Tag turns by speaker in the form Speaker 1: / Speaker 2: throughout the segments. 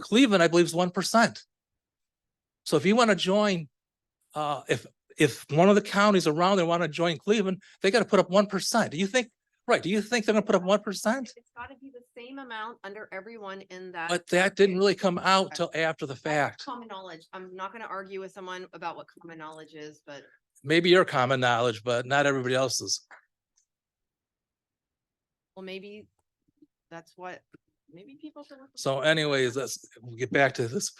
Speaker 1: Cleveland, I believe, is one percent. So if you want to join, uh, if, if one of the counties around there want to join Cleveland, they got to put up one percent. Do you think, right, do you think they're gonna put up one percent?
Speaker 2: It's gotta be the same amount under everyone in that.
Speaker 1: But that didn't really come out
Speaker 2: Okay.
Speaker 1: till after the
Speaker 2: That's
Speaker 1: fact.
Speaker 2: Common knowledge. I'm not gonna argue with someone about what common knowledge is, but
Speaker 1: Maybe your common knowledge, but not everybody else's.
Speaker 2: well, maybe that's what, maybe people. can work with
Speaker 1: So
Speaker 2: it.
Speaker 1: anyways, let's we'll get back to this.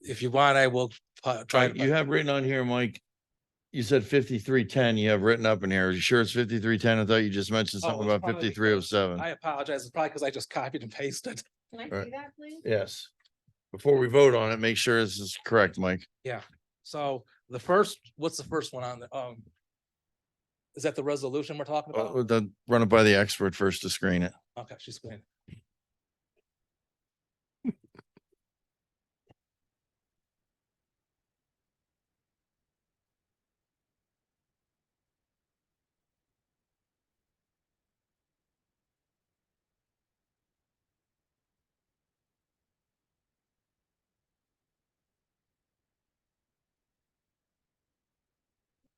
Speaker 1: If you want, I will uh, try.
Speaker 3: Right,
Speaker 1: to
Speaker 3: you have written on here, Mike. You said fifty-three ten, you have written up in here. Are you sure it's fifty-three ten? I thought you just mentioned
Speaker 1: Oh,
Speaker 3: something
Speaker 1: it's
Speaker 3: about
Speaker 1: probably
Speaker 3: fifty-three oh seven.
Speaker 1: I apologize. It's probably because I just copied and pasted.
Speaker 2: Can I
Speaker 3: Right.
Speaker 2: see that, please?
Speaker 3: Yes. Before we vote on it, make sure this is correct, Mike.
Speaker 1: So the first, what's the first one on the, um? Is that the resolution we're talking
Speaker 3: Uh,
Speaker 1: about?
Speaker 3: then run it by the expert first to screen it.
Speaker 1: Okay, she's going.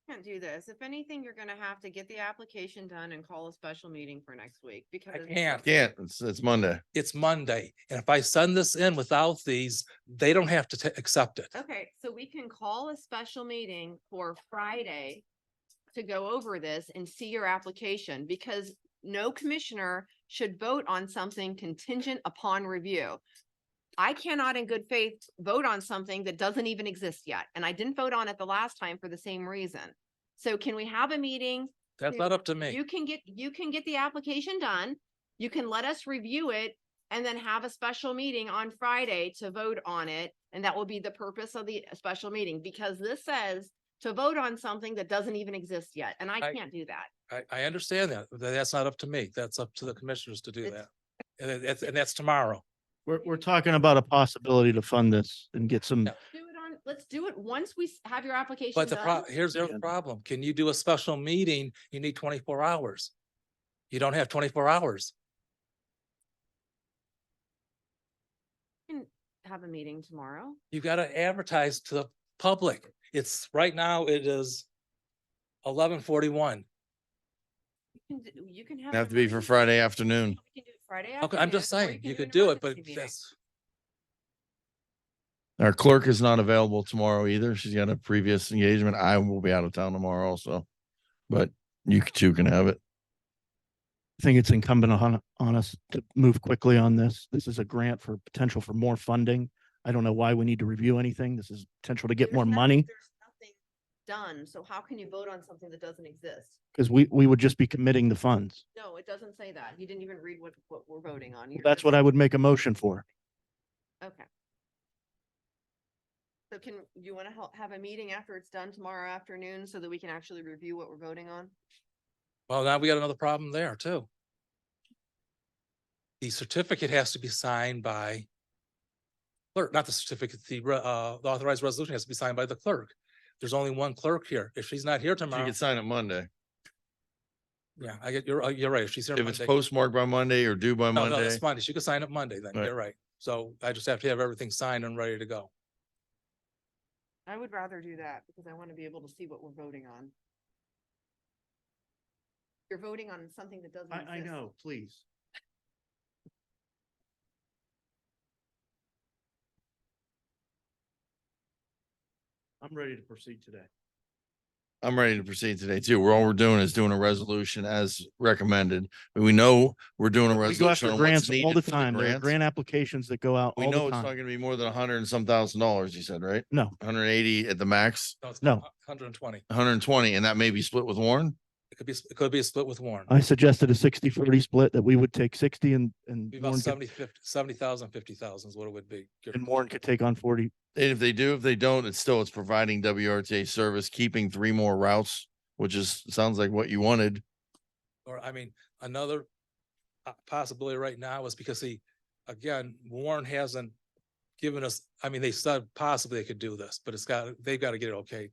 Speaker 2: Can't do this. If anything, you're gonna have to get the application done and call a special meeting for next week because.
Speaker 1: can't.
Speaker 3: Can't, it's, it's Monday.
Speaker 1: It's Monday, and if I send this in without these, they don't have to ta- accept it.
Speaker 2: Okay, so we can call a special meeting for Friday to go over this and see your application because no commissioner should vote on something contingent upon review. I cannot in good faith vote on something that doesn't even exist yet, and I didn't vote on it the last time for the same reason. So can we have a meeting
Speaker 1: That's
Speaker 2: Dude,
Speaker 1: not up to
Speaker 2: you
Speaker 1: me.
Speaker 2: can get, you can get the application done. You can let us review it and then have a special meeting on Friday to vote on it. And that will be the purpose of the special meeting because this says to vote on something that doesn't even exist yet. And I
Speaker 1: I-
Speaker 2: can't do that.
Speaker 1: I, I understand that. but That's not up to me. That's up to the commissioners to do
Speaker 2: It's-
Speaker 1: that. And that- that's, and that's tomorrow.
Speaker 4: We're, we're talking about a possibility to fund this and get some,
Speaker 1: Yeah.
Speaker 2: Do it on, let's do it once we s- have your application
Speaker 1: But the pro,
Speaker 2: done.
Speaker 1: here's the other
Speaker 4: Yeah.
Speaker 1: problem. Can you do a special meeting? You need twenty-four hours. You don't have twenty-four hours.
Speaker 2: Have a meeting tomorrow.
Speaker 1: You gotta advertise to the public. It's, right now, it is eleven forty-one.
Speaker 2: You can d- You can have.
Speaker 3: Have
Speaker 2: an
Speaker 3: to be for
Speaker 2: emergency-
Speaker 3: Friday afternoon.
Speaker 2: We can do it Friday
Speaker 1: Okay, I'm just
Speaker 2: afternoon, or
Speaker 1: saying, you
Speaker 2: can
Speaker 1: could
Speaker 2: an
Speaker 1: do it, but
Speaker 2: emergency meeting.
Speaker 1: that's,
Speaker 3: Our clerk is not available tomorrow either. She's got a previous engagement. I will be out of town tomorrow also. But you two can have it.
Speaker 4: I think it's incumbent on, on us to move quickly on this. This is a grant for potential for more funding. I don't know why we need to review anything. This is potential to get
Speaker 2: There's
Speaker 4: more
Speaker 2: nothing-
Speaker 4: money
Speaker 2: there's nothing Done. So how can you vote on something that doesn't exist?
Speaker 4: because we, we would just be committing the funds.
Speaker 2: No, it doesn't say that. You didn't even read what, what we're voting on.
Speaker 4: Well, That's what I would make a motion for.
Speaker 2: Okay. So can, you want to have a meeting after it's done tomorrow afternoon so that we can actually review what we're voting on?
Speaker 1: well, now we got another problem there too. The certificate has to be signed by clerk, not the certificate, the, re- uh, the authorized resolution has to be signed by the clerk. There's only one clerk here. If she's not here
Speaker 3: You
Speaker 1: tomorrow,
Speaker 3: can sign it Monday.
Speaker 1: yeah, I get, you're, uh, you're right. If she's here
Speaker 3: If it's
Speaker 1: Monday.
Speaker 3: postmarked by Monday or due by
Speaker 1: No, no,
Speaker 3: Monday.
Speaker 1: it's Monday. She could sign up Monday then.
Speaker 3: Right.
Speaker 1: You're right. So I just have to have everything signed and ready to go.
Speaker 2: I would rather do that because I want to be able to see what we're voting on. You're voting on something that doesn't exist.
Speaker 4: please. I'm ready to proceed today.
Speaker 3: I'm ready to proceed today too. We're all we're doing is doing a resolution as recommended. We know we're doing a
Speaker 4: We go
Speaker 3: resolution.
Speaker 4: after
Speaker 3: on what's
Speaker 4: grants all
Speaker 3: needed
Speaker 4: the
Speaker 3: for
Speaker 4: time. There are
Speaker 3: grants.
Speaker 4: grant applications that go out
Speaker 3: We
Speaker 4: all
Speaker 3: know
Speaker 4: the
Speaker 3: it's not
Speaker 4: time.
Speaker 3: gonna be more than a hundred and some thousand dollars, you said, right?
Speaker 4: No,
Speaker 3: Hundred and eighty at the max,
Speaker 4: No.
Speaker 1: Hundred and twenty.
Speaker 3: hundred and twenty, and that may be split with Warren?
Speaker 1: It could be, it could be a split with Warren.
Speaker 4: I suggested a 60-40 split that we would take sixty and, and
Speaker 1: Be about
Speaker 4: Warren could,
Speaker 1: seventy, fifty, seventy thousand, fifty thousand is what it would be. Give or
Speaker 4: and Warren could take on forty.
Speaker 3: And if they do, if they don't, it's still, it's providing WRTA service, keeping three more routes, which is, sounds like what you wanted.
Speaker 1: or I mean, another uh, possibility right now is because he, again, Warren hasn't given us, I mean, they said possibly they could do this, but it's got, they've got to get it okay.
Speaker 3: We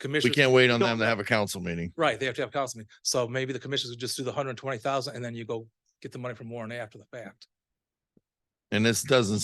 Speaker 1: Commissioners,
Speaker 3: can't wait on
Speaker 1: don't
Speaker 3: them to
Speaker 1: know.
Speaker 3: have a council meeting.
Speaker 1: right, they have to have council meeting. So maybe the commissioners would just do the hundred and twenty thousand and then you go get the money from Warren after the fact.
Speaker 3: And this doesn't